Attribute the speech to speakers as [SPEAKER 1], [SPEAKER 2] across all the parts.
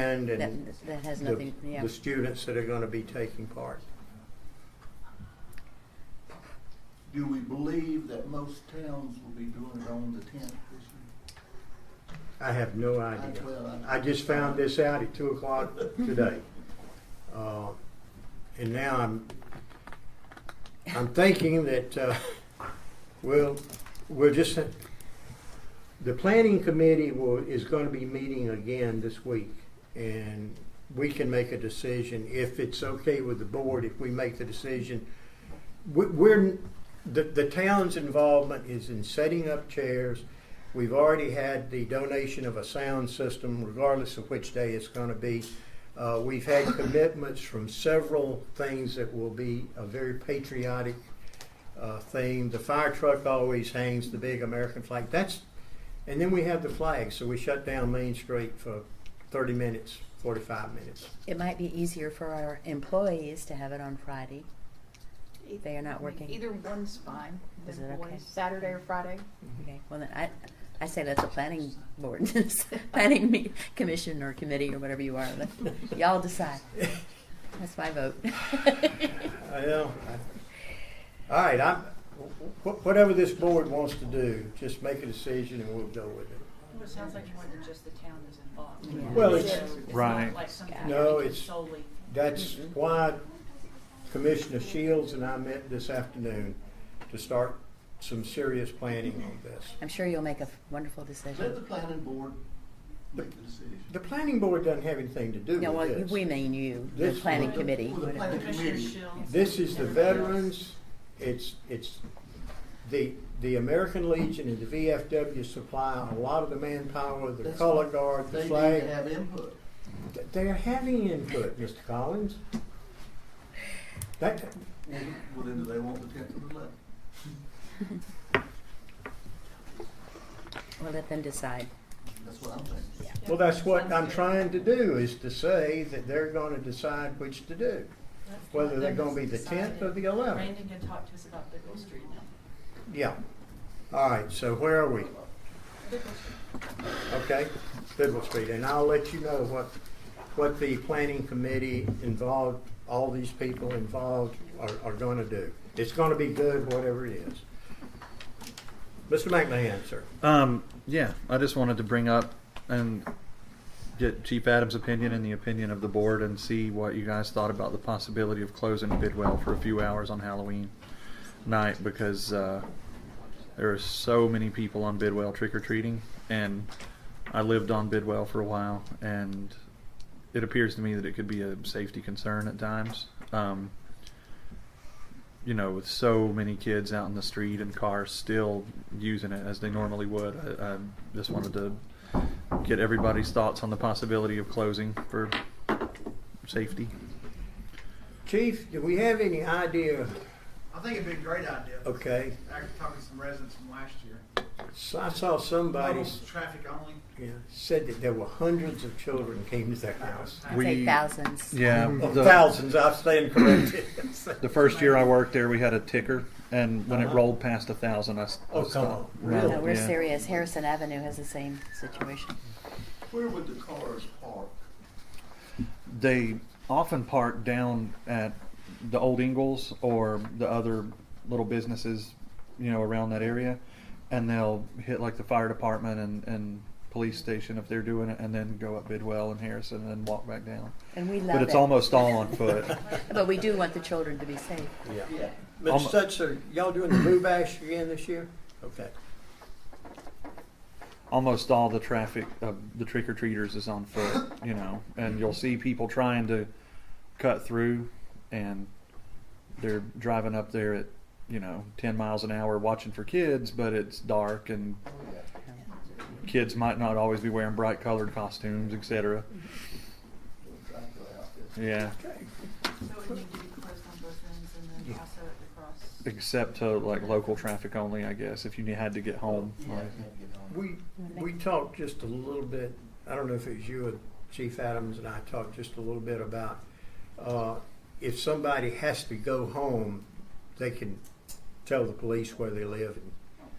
[SPEAKER 1] mind and
[SPEAKER 2] That, that has
[SPEAKER 1] the,
[SPEAKER 2] nothing, yeah.
[SPEAKER 1] the students that are gonna be taking part.
[SPEAKER 3] Do we believe that most towns will be doing it on the tenth this year?
[SPEAKER 1] I have no idea. I just found this out at two o'clock today. Uh, And now I'm, I'm thinking that, uh, we'll, we'll just, the planning committee will, is gonna be meeting again this week. And we can make a decision if it's okay with the board, if we make the decision. We, we're, the, the town's involvement is in setting up chairs, We've already had the donation of a sound system, regardless of which day it's going to be. Uh, we've had commitments from several things that will be a very patriotic uh, thing. The fire truck always hangs the big American flag. That's, and then we have the flag. So we shut down Main Street for 30 minutes, 45 minutes.
[SPEAKER 2] It might be easier for our employees to have it on Friday. They are not working.
[SPEAKER 4] Either one's fine.
[SPEAKER 2] Is
[SPEAKER 4] The
[SPEAKER 2] it
[SPEAKER 4] boys,
[SPEAKER 2] okay?
[SPEAKER 4] Saturday or Friday.
[SPEAKER 1] Mm-hmm.
[SPEAKER 2] Okay, well then I, I say let the planning board, planning me, commission or committee or whatever you are, let- y'all decide. That's my vote.
[SPEAKER 1] I know. I- All right, I'm, wh- whatever this board wants to do, just make a decision and we'll go with it.
[SPEAKER 5] Well, it sounds like more than just the town is involved.
[SPEAKER 2] Yeah.
[SPEAKER 1] Well, it's-
[SPEAKER 5] So it's
[SPEAKER 6] Right.
[SPEAKER 5] not like something
[SPEAKER 2] Yeah.
[SPEAKER 5] that
[SPEAKER 1] No,
[SPEAKER 5] we can
[SPEAKER 1] it's-
[SPEAKER 5] solely.
[SPEAKER 1] That's
[SPEAKER 2] Mhm.
[SPEAKER 3] Mm-hmm.
[SPEAKER 1] why Commissioner Shields and I met this afternoon to start some serious planning on this.
[SPEAKER 2] I'm sure you'll make a wonderful
[SPEAKER 3] Let the
[SPEAKER 2] decision.
[SPEAKER 3] planning board make the decision.
[SPEAKER 1] The planning board doesn't have anything to do
[SPEAKER 2] No, well,
[SPEAKER 1] with this.
[SPEAKER 2] we mean you, the
[SPEAKER 1] This is-
[SPEAKER 2] planning
[SPEAKER 3] Well, the-
[SPEAKER 2] committee.
[SPEAKER 3] well, the planning
[SPEAKER 5] Commissioner
[SPEAKER 3] committee.
[SPEAKER 5] Shields.
[SPEAKER 1] This is the
[SPEAKER 5] everybody else.
[SPEAKER 1] veterans, it's, it's, the, the American Legion and the VFW supply a lot of the manpower, the
[SPEAKER 3] That's
[SPEAKER 1] color
[SPEAKER 3] fine.
[SPEAKER 1] guard, the
[SPEAKER 3] They need to
[SPEAKER 1] flag.
[SPEAKER 3] have input.
[SPEAKER 1] Th- They're having input, Mr. Collins. That,
[SPEAKER 3] Well, then do they want the tenth or the eleventh?
[SPEAKER 2] We'll let them decide.
[SPEAKER 3] That's what I'm thinking.
[SPEAKER 1] Well, that's what I'm trying to do, is to say that they're gonna decide which to do,
[SPEAKER 5] That's
[SPEAKER 1] whether
[SPEAKER 5] not
[SPEAKER 1] they're
[SPEAKER 5] them
[SPEAKER 1] gonna be
[SPEAKER 5] that's
[SPEAKER 1] the tenth or
[SPEAKER 5] decided.
[SPEAKER 1] the eleventh.
[SPEAKER 5] Brandon can talk to us about Bickle Street now.
[SPEAKER 1] Yeah. All right, so where are we?
[SPEAKER 5] Bickle Street.
[SPEAKER 1] Okay, Bidwell Street, and I'll let you know what, what the planning committee involved, all these people involved are, are gonna do. It's gonna be good, whatever it is. Mr. McMahon, sir.
[SPEAKER 6] Um, yeah, I just wanted to bring up and get Chief Adams' opinion and the opinion of the board and see what you guys thought about the possibility of closing Bidwell for a few hours on Halloween night because uh, there are so many people on Bidwell trick or treating, and I lived on Bidwell for a while, and it appears to me that it could be a safety concern at times. Um, you know, with so many kids out in the street and cars still using it as they normally would, I, I just wanted to get everybody's thoughts on the possibility of closing for safety.
[SPEAKER 1] Chief, do we have any idea,
[SPEAKER 7] I think it'd be a great idea.
[SPEAKER 1] okay,
[SPEAKER 7] I could talk to some residents from last year.
[SPEAKER 1] so I saw somebody,
[SPEAKER 7] Mobile Traffic only.
[SPEAKER 1] yeah, said that there were hundreds of children came to their house.
[SPEAKER 2] I'd say
[SPEAKER 6] We-
[SPEAKER 2] thousands.
[SPEAKER 6] Yeah,
[SPEAKER 1] Of thousands, I stand corrected.
[SPEAKER 6] The first year I worked there, we had a ticker, and when
[SPEAKER 1] Uh-huh.
[SPEAKER 6] it rolled past a thousand, I, s- I
[SPEAKER 1] Oh, come
[SPEAKER 6] stopped.
[SPEAKER 1] on. Really?
[SPEAKER 2] No, we're
[SPEAKER 6] Yeah.
[SPEAKER 2] serious. Harrison Avenue has the same situation.
[SPEAKER 3] Where would the cars park?
[SPEAKER 6] They often park down at the old Ingalls or the other little businesses, you know, around that area, and they'll hit like the fire department and, and police station if they're doing it, and then go up Bidwell and Harrison and then walk back down.
[SPEAKER 2] And we love it.
[SPEAKER 6] But it's almost all on foot.
[SPEAKER 2] But we do want the children to be safe.
[SPEAKER 1] Yeah.
[SPEAKER 3] Yeah.
[SPEAKER 1] Mr.
[SPEAKER 6] Almo-
[SPEAKER 1] Sutzer, y'all doing the Blue Bash again this year? Okay.
[SPEAKER 6] almost all the traffic of the trick or treaters is on foot, you know, and you'll see people trying to cut through and they're driving up there at, you know, 10 miles an hour watching for kids, but it's dark and kids might not always be wearing bright colored costumes, etc. Yeah,
[SPEAKER 5] So it would need to be closed on both ends and then also at the cross.
[SPEAKER 6] except to like local traffic only, I guess, if you had to get home.
[SPEAKER 3] Yeah, I can't get on.
[SPEAKER 1] We, we talked just a little bit, I don't know if it was you or Chief Adams and I talked just a little bit about, uh, if somebody has to go home, they can tell the police where they live and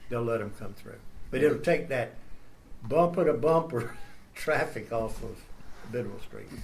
[SPEAKER 1] they'll let them come through. But it'll take that bumper to bumper traffic off of Bidwell Street.